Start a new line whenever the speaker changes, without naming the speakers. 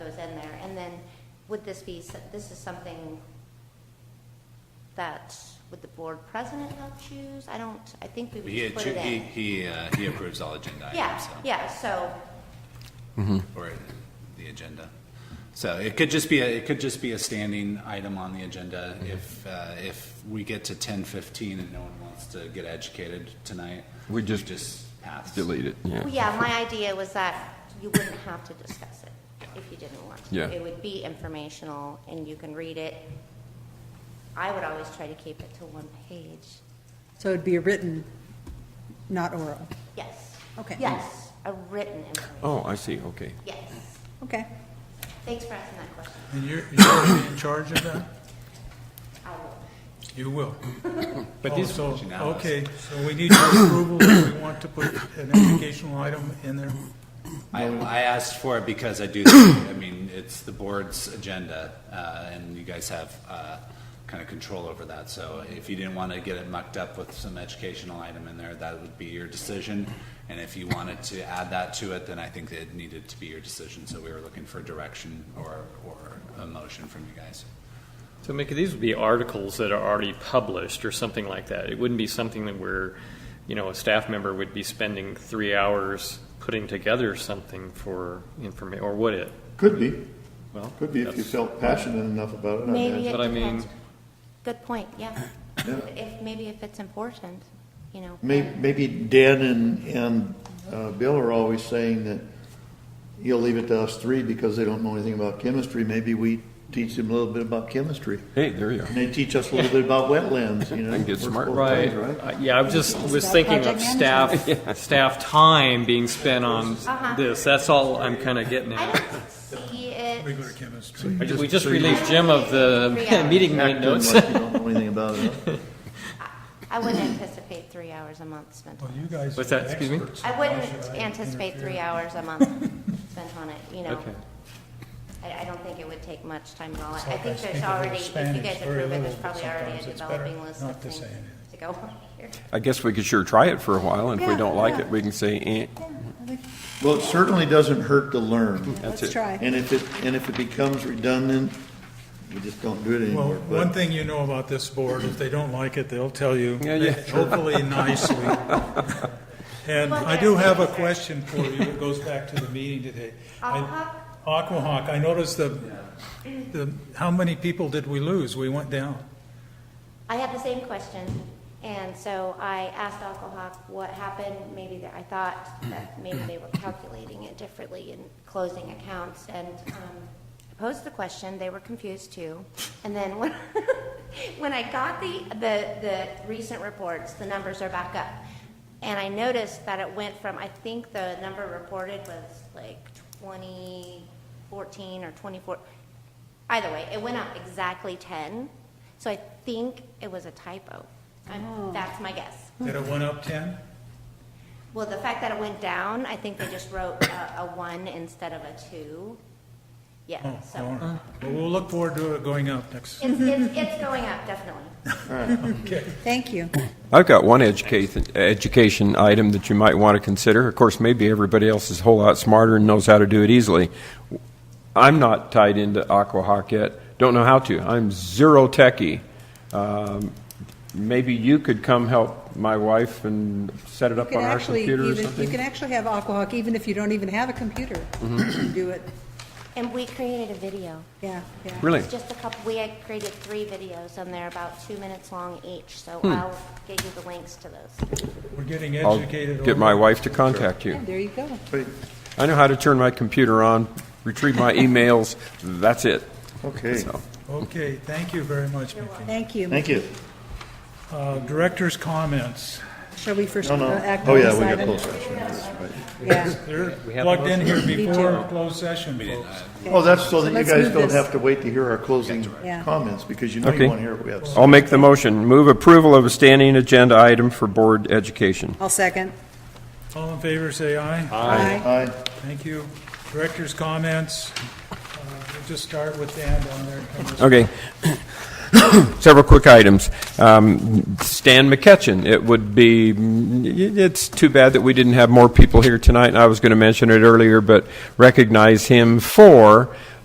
in there, and then would this be, s- this is something that, would the board president not choose? I don't, I think we would
He,
just put it
he,
in.
he, uh, he approves all agenda
Yeah,
items, so.
yeah, so,
Or the agenda. So it could just be, a it could just be a standing item on the agenda.
Mm-hmm.
If, uh, if we get to ten fifteen and no one wants to get educated tonight.
We just-
Just pass.
Delete it, yeah.
well, yeah, my idea was that you wouldn't have to discuss it if you didn't want to.
Yeah.
It would be informational, and you can read it. I would always try to keep it to one page.
So it'd be a written, not oral.
Yes.
Okay.
Yes, a written information,
Oh, I see, okay.
yes.
Okay.
Thanks for asking that question.
And you're, you're in charge of that?
I will.
You will.
But
Oh,
these-
so-
functionalities-
Okay, so we need your approval if we want to put an educational item in there.
I, I asked for it because I do, think- I mean, it's the board's agenda, uh, and you guys have, uh, kind of control over that. So if you didn't want to get it mucked up with some educational item in there, that would be your decision. And if you wanted to add that to it, then I think that it needed to be your decision. So we were looking for direction or, or a motion from you guys.
So, Mickey, these would be articles that are already published or something like that. It wouldn't be something that we're, you know, a staff member would be spending three hours putting together something for information, or would it?
Could be.
Well,
Could be if you
that's-
felt passionate enough about it. I
Maybe
imagine.
it
But I mean-
depends. Good point, yeah.
Yeah.
If, maybe if it's important, you know.
May- Maybe Dan and, and uh, Bill are always saying that you'll leave it to us three because they don't know anything about chemistry. Maybe we teach them a little bit about chemistry.
Hey, there you are.
And they teach us a little bit about wetlands, you know.
And get
We're
smart.
both
Right.
times,
Uh, Yeah, I was just was
about
thinking of
project
staff, staff time being spent on
Uh-huh.
this. That's all I'm kind of getting
I
at.
don't see it.
Regular chemistry.
I ju- We just
so you
released Jim of
Three
the
hours.
meeting minute
Act them like
notes.
you don't know anything about it. huh?
I wouldn't anticipate three hours a month spent
Well,
on
you guys
What's
are
that? Excuse me?
experts.
I
Why
wouldn't
should I
anticipate
interfere?
three hours a month spent on it, you know.
Okay.
I, I don't think it would take much time at all. I think
Sometimes
there's
people do
already, if you
Spanish
guys
very
approve it, there's
little, but
probably already a
sometimes it's better
developing list of
not to
things
say anything.
to go on here.
I guess we could sure try it for a while, and if we
Yeah,
don't like
yeah.
it, we can say, eh,
Well, it certainly doesn't hurt to learn.
That's
Let's
it.
try.
And if it, and if it becomes redundant, we just don't do it
Well,
anymore. but-
one thing you know about this board, if they don't like it, they'll tell you,
Yeah, yeah.
hopefully nicely. And I do have a question for you that goes back to the meeting today. I- Aquahawk, I noticed the, the, how many people did we lose? We went down.
I had the same question, and so I asked Alcohawk what happened. Maybe that I thought that maybe they were calculating it differently and closing accounts, and um, I posed the question. They were confused too, and then when when I got the, the the recent reports, the numbers are back up, and I noticed that it went from I think the number reported was like 2014 or 24. Either way, it went up exactly 10. So I think it was a typo. I'm, That's my guess.
Did it went up 10?
Well, the fact that it went down, I think they just wrote a, a one instead of a two.
Oh,
Yeah,
all
so
right. Well, we'll look forward to it going up next.
it's, it's, it's going up, definitely.
Thank you.
I've got one education, education item that you might want to consider. Of course, maybe everybody else is a whole lot smarter and knows how to do it easily. I'm not tied into Aquahawk yet. Don't know how to. I'm zero techie. Um, maybe you could come help my wife and set it
You
up
can
on our
actually,
computer or
even,
something.
you can actually have Aquahawk even if you don't even have a computer. You can do it,
And we created a video.
yeah, yeah.
Really?
It's just a couple, we had created three videos and they're about two minutes long each, so I'll get you the links to those.
We're getting
I'll
educated.
get
over-
my wife to contact you.
Yeah, There you go.
Wait,
I know how to turn my computer on, retrieve my emails. That's it.
Okay,
So-
Okay, thank you very much, Mickey.
Thank you.
thank you.
Uh, Director's comments.
Shall we first
No, no.
uh, act
Oh,
on
yeah,
this
we got
item?
closed session. That's right.
Yeah.
They're plugged in here before closed session, folks.
Oh, that's so that you
let's
guys
move
don't
this.
have to wait to hear our closing
Yeah.
comments, because you know
Okay.
you want to hear what we have to say.
I'll make the motion. Move approval of a standing agenda item for board education.
I'll second.
All in favor, say aye.
Aye.
Aye.
Thank you. Director's comments. Uh, We'll just start with Dan down there.
Okay. Several quick items. Um, Stan McCutcheon, it would be, it's too bad that we didn't have more people here tonight, and I was going to mention it earlier, but recognize him for